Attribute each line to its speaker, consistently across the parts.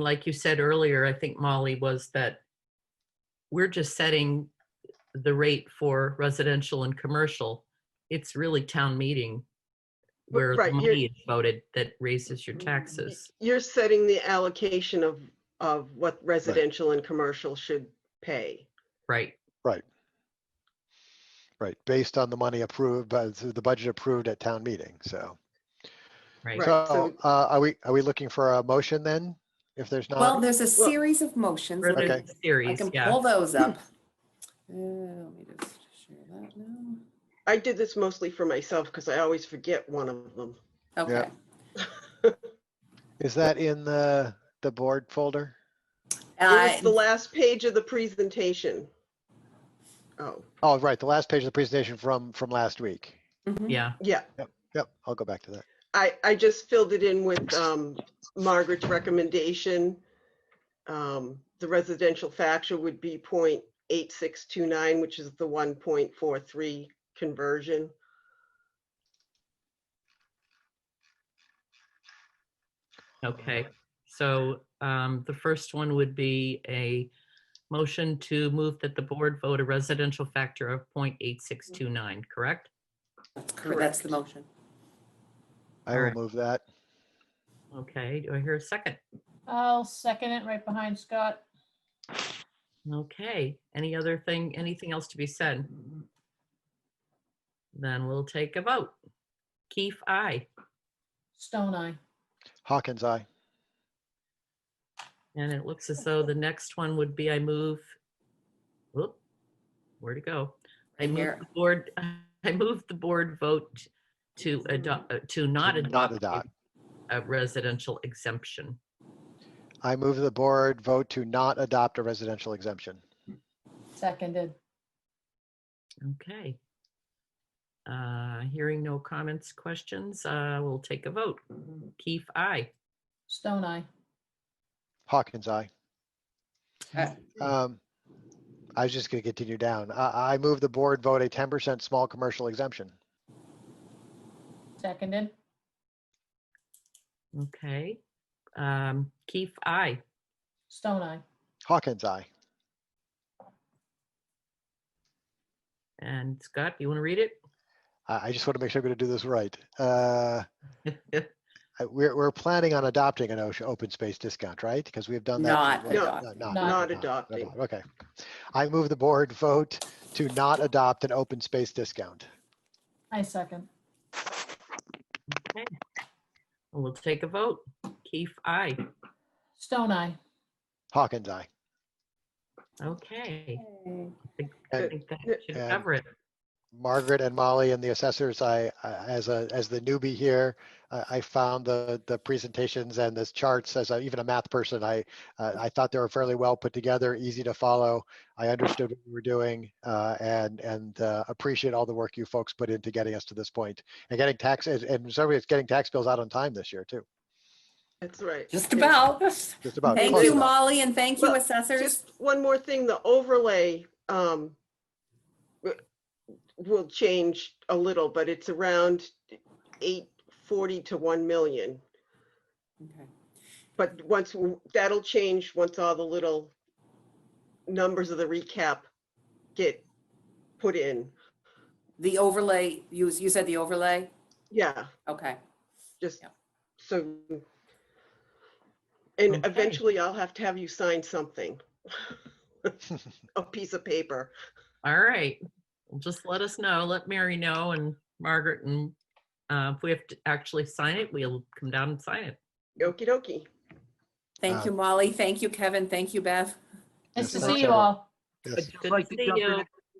Speaker 1: like you said earlier, I think Molly was that we're just setting the rate for residential and commercial. It's really town meeting where the
Speaker 2: right, you're-
Speaker 1: money is voted that raises your taxes.
Speaker 2: You're setting the allocation of, of what residential and commercial should pay.
Speaker 1: Right,
Speaker 3: Right, based on the money approved, by the budget approved at town meeting, so.
Speaker 1: right.
Speaker 2: Right,
Speaker 3: So,
Speaker 2: so-
Speaker 3: uh, are we, are we looking for a motion then? If there's
Speaker 4: Well,
Speaker 3: not,
Speaker 4: there's a series of motions.
Speaker 1: Or
Speaker 4: but
Speaker 3: Okay.
Speaker 1: there's a
Speaker 4: I
Speaker 1: Series,
Speaker 4: can
Speaker 1: yeah.
Speaker 4: pull those up. Uh, Let me just share that now.
Speaker 2: I did this mostly for myself because I always forget one of them.
Speaker 4: Okay.
Speaker 3: is that in the, the board folder?
Speaker 2: It was the
Speaker 4: Uh,
Speaker 2: last page of the presentation. Oh,
Speaker 3: Oh, right, the last page of the presentation from, from last week.
Speaker 4: mhm.
Speaker 1: Yeah,
Speaker 2: yeah,
Speaker 3: Yep, I'll go back to that.
Speaker 2: I, I just filled it in with um, Margaret's recommendation. Um, The residential factor would be 0.8629, which is the one point four three conversion.
Speaker 1: okay. So um, the first one would be a motion to move that the board vote a residential factor of 0.8629, correct?
Speaker 4: That's the motion.
Speaker 3: I will
Speaker 1: Alright.
Speaker 3: move that.
Speaker 1: Okay, do I hear a second?
Speaker 5: I'll second it right behind Scott.
Speaker 1: Okay, any other thing, anything else to be said? Then we'll take a vote. Keith, aye.
Speaker 5: Stone Eye.
Speaker 3: Hawkins, aye.
Speaker 1: And it looks as though the next one would be I move. Whoop, where to go? I
Speaker 4: Right
Speaker 1: move
Speaker 4: here.
Speaker 1: the board, I move the board vote to adopt, uh, to not
Speaker 3: To not
Speaker 1: adopt a-
Speaker 3: adopt.
Speaker 1: a residential exemption.
Speaker 3: I move the board vote to not adopt a residential exemption.
Speaker 5: Seconded.
Speaker 1: Okay. Uh, Hearing no comments, questions, uh, we'll take a vote. Keith, aye.
Speaker 5: Stone Eye.
Speaker 3: Hawkins, aye.
Speaker 4: Uh,
Speaker 3: Um, I was just gonna continue down. I, I move the board vote a ten percent small commercial exemption.
Speaker 5: Seconded.
Speaker 1: Okay. Um, Keith, aye.
Speaker 5: Stone Eye.
Speaker 3: Hawkins, aye.
Speaker 1: And Scott, you want to read it?
Speaker 3: I I just want to make sure I'm going to do this right. Uh, I- We're, we're planning on adopting an OSHA open space discount, right? Because we have done that.
Speaker 4: Not
Speaker 3: before.
Speaker 2: No,
Speaker 4: adopting.
Speaker 3: not-
Speaker 5: Not
Speaker 3: not
Speaker 2: adopting.
Speaker 3: adopt- Okay. I move the board vote to not adopt an open space discount.
Speaker 5: I second.
Speaker 1: We'll take a vote. Keith, aye.
Speaker 5: Stone Eye.
Speaker 3: Hawkins, aye.
Speaker 1: Okay. I
Speaker 3: And
Speaker 1: think that should
Speaker 3: And-
Speaker 1: cover it.
Speaker 3: Margaret and Molly and the assessors, I, I- as a, as the newbie here, I, I found the, the presentations and the charts as a- even a math person, I, uh, I thought they were fairly well put together, easy to follow. I understood what we were doing uh, and, and uh, appreciate all the work you folks put into getting us to this point and getting tax, and- and sorry, it's getting tax bills out on time this year too,
Speaker 2: That's right.
Speaker 4: Just
Speaker 2: Yeah.
Speaker 4: about.
Speaker 3: just about.
Speaker 4: Thank
Speaker 3: close
Speaker 4: you,
Speaker 3: enough.
Speaker 4: Molly, and thank you,
Speaker 2: Uh, Well,
Speaker 4: assessors.
Speaker 2: Just one more thing, the overlay um, w- will change a little, but it's around 840 to 1 million.
Speaker 4: Okay.
Speaker 2: But once, w- that'll change once all the little numbers of the recap get put in.
Speaker 4: The overlay, you, you said the overlay?
Speaker 2: Yeah,
Speaker 4: Okay.
Speaker 2: just
Speaker 4: Yeah.
Speaker 2: so. And
Speaker 1: Okay.
Speaker 2: eventually I'll have to have you sign something. A piece of paper.
Speaker 1: All right. Well, Just let us know. Let Mary know and Margaret and uh, if we have to actually sign it, we'll come down and sign it.
Speaker 2: Okey dokey.
Speaker 4: Thank you, Molly. Thank you, Kevin. Thank you, Beth.
Speaker 5: Nice to
Speaker 3: Yes,
Speaker 5: see you
Speaker 3: I-
Speaker 5: all.
Speaker 3: Yes.
Speaker 1: Good
Speaker 6: I'd
Speaker 1: to
Speaker 6: like to
Speaker 1: see
Speaker 6: jump in
Speaker 1: you.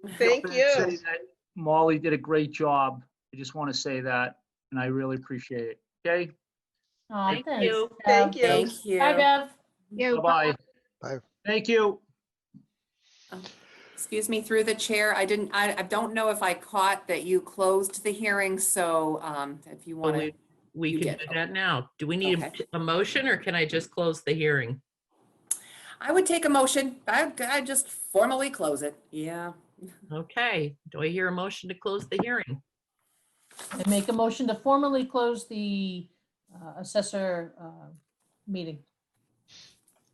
Speaker 6: and-
Speaker 2: Thank
Speaker 6: jump in
Speaker 2: you.
Speaker 6: and say that Molly did a great job. I just want to say that, and I really appreciate it. Okay,
Speaker 5: Aw,
Speaker 1: Thank
Speaker 5: thanks,
Speaker 1: you.
Speaker 5: Bev.
Speaker 2: Thank you.
Speaker 4: Thank you.
Speaker 5: Bye, Bev.
Speaker 6: bye-bye.
Speaker 3: Bye.
Speaker 6: Thank you.
Speaker 4: Excuse me, through the chair, I didn't, I, I don't know if I caught that you closed the hearing, so um, if you want to,
Speaker 1: we- We
Speaker 4: You
Speaker 1: can
Speaker 4: get-
Speaker 1: do that now. Do we need a-
Speaker 4: Okay.
Speaker 1: a motion or can I just close the hearing?
Speaker 4: I would take a motion. I, I just formally close it. Yeah.
Speaker 1: Okay. Do I hear a motion to close the hearing?
Speaker 5: And make a motion to formally close the uh, assessor uh, meeting.